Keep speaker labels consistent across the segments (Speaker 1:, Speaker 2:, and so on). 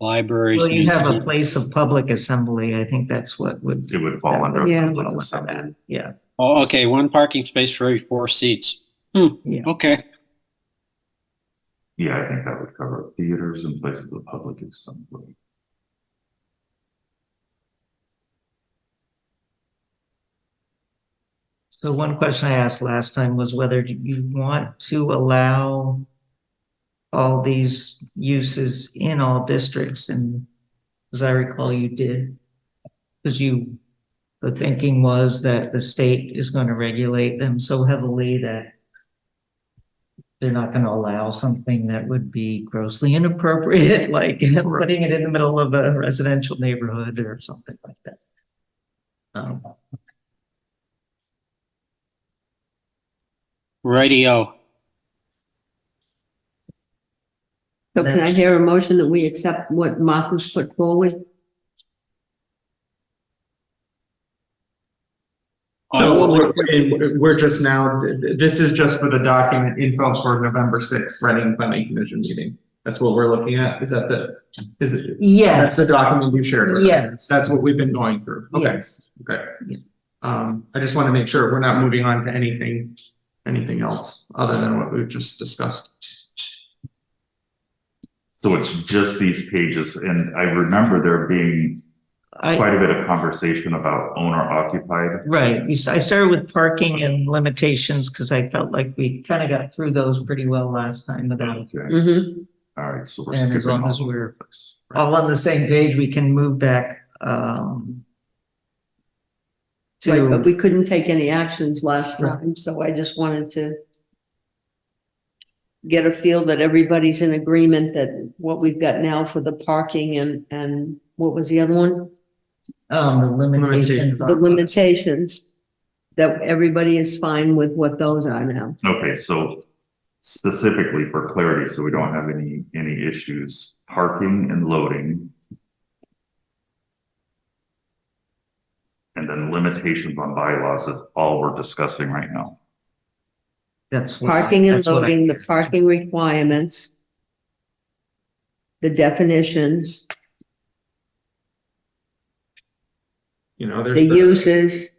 Speaker 1: libraries.
Speaker 2: Well, you have a
Speaker 1: museums.
Speaker 2: place of public assembly. I think that's what would.
Speaker 3: It would fall under.
Speaker 4: Yeah.
Speaker 3: public assembly.
Speaker 2: Yeah,
Speaker 1: Oh, okay, one parking space for every four seats. Hmm,
Speaker 2: Yeah.
Speaker 1: okay,
Speaker 3: Yeah, I think that would cover theaters and places of public assembly.
Speaker 2: so one question I asked last time was whether you want to allow all these uses in all districts and as I recall, you did. Because you, the thinking was that the state is going to regulate them so heavily that they're not going to allow something that would be grossly inappropriate, like putting it in the middle of a residential neighborhood or something like that. Um,
Speaker 1: radio.
Speaker 4: So can I hear a motion that we accept what Martha's put forward?
Speaker 5: So
Speaker 1: Oh,
Speaker 5: what we're, and we're just now, this is just for the document info for November sixth, Reading Planning Commission meeting. That's what we're looking at. Is that the, is it, that's
Speaker 2: Yes,
Speaker 5: the document you shared? with us?
Speaker 2: Yes.
Speaker 5: That's what we've been going through. Okay,
Speaker 2: yes.
Speaker 5: okay.
Speaker 2: Yeah.
Speaker 5: Um, I just want to make sure we're not moving on to anything, anything else other than what we've just discussed.
Speaker 3: So it's just these pages, and I remember there being
Speaker 2: I,
Speaker 3: quite a bit of conversation about owner occupied.
Speaker 2: right, you s- I started with parking and limitations because I felt like we kind of got through those pretty well last time without,
Speaker 3: Okay,
Speaker 4: Mm-hmm.
Speaker 3: all right, so
Speaker 2: and
Speaker 3: we're
Speaker 2: as
Speaker 3: skipping
Speaker 2: long
Speaker 3: all
Speaker 2: as we're
Speaker 3: this.
Speaker 2: all on the same page, we can move back, um,
Speaker 4: Right, but
Speaker 2: to,
Speaker 4: we couldn't take any actions last time, so I just wanted to get a feel that everybody's in agreement that what we've got now for the parking and, and what was the other one?
Speaker 2: um, the limitations.
Speaker 4: The limitations, that everybody is fine with what those are now.
Speaker 3: Okay, so specifically for clarity, so we don't have any, any issues, parking and loading. And then limitations on bylaws is all we're discussing right now.
Speaker 2: That's what I-
Speaker 4: Parking and
Speaker 2: that's what I-
Speaker 4: loading, the parking requirements, the definitions,
Speaker 5: You know, there's.
Speaker 4: the uses,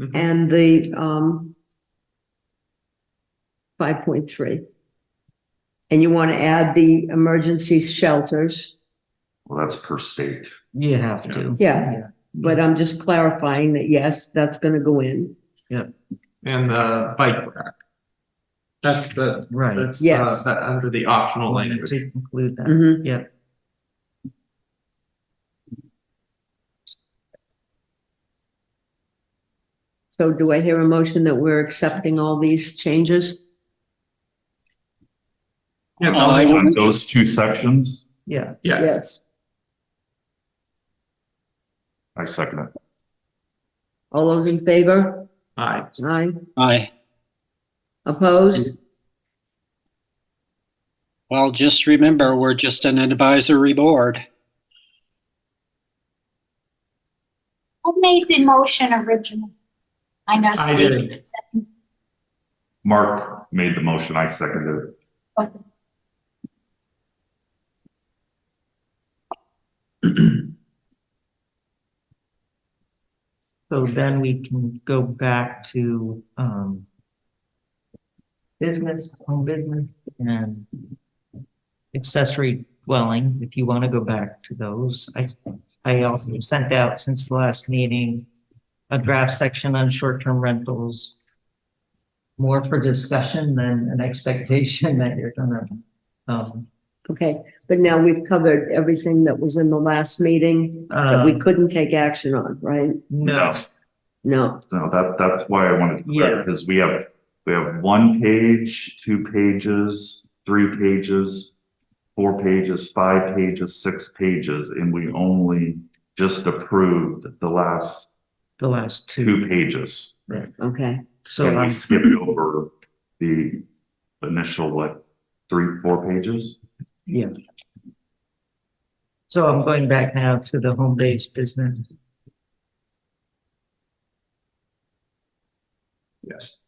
Speaker 5: Mhm.
Speaker 4: and the, um, five point three. And you want to add the emergency shelters,
Speaker 3: Well, that's per state.
Speaker 2: You have to.
Speaker 4: Yeah. but I'm just clarifying that, yes, that's gonna go in.
Speaker 5: And the bike rack. That's the,
Speaker 2: Right.
Speaker 5: that's, uh,
Speaker 4: Yes.
Speaker 5: that, under the optional language.
Speaker 2: To include that.
Speaker 4: Mhm.
Speaker 2: Yep.
Speaker 4: So do I hear a motion that we're accepting all these changes?
Speaker 5: Yes,
Speaker 1: Uh,
Speaker 5: I'll
Speaker 1: I
Speaker 5: make-
Speaker 1: will-
Speaker 3: On those two sections,
Speaker 2: Yeah.
Speaker 5: yes.
Speaker 3: I second it.
Speaker 4: All those in favor?
Speaker 5: Aye.
Speaker 4: Aye.
Speaker 1: Aye.
Speaker 4: Opposed?
Speaker 1: Well, just remember, we're just an advisory board.
Speaker 6: Who made the motion original? I know
Speaker 5: I did.
Speaker 6: Stacy. said-
Speaker 3: Mark made the motion, I seconded it.
Speaker 2: So then we can go back to, um, business, home business and accessory dwelling, if you want to go back to those. I, I also sent out since the last meeting a draft section on short-term rentals, more for discussion than an expectation that you're gonna, um,
Speaker 4: Okay, but now we've covered everything that was in the last meeting that we
Speaker 2: uh,
Speaker 4: couldn't take action on, right?
Speaker 2: no,
Speaker 4: No.
Speaker 3: No, that, that's why I wanted to
Speaker 2: Yeah.
Speaker 3: clarify, because we have, we have one page, two pages, three pages, four pages, five pages, six pages, and we only just approved the last
Speaker 2: the last two.
Speaker 3: two pages.
Speaker 4: Okay,
Speaker 2: So
Speaker 3: And
Speaker 2: I'm
Speaker 3: we skipped over the initial, what, three, four pages?
Speaker 2: Yeah. So I'm going back now to the home-based business.
Speaker 5: Yes.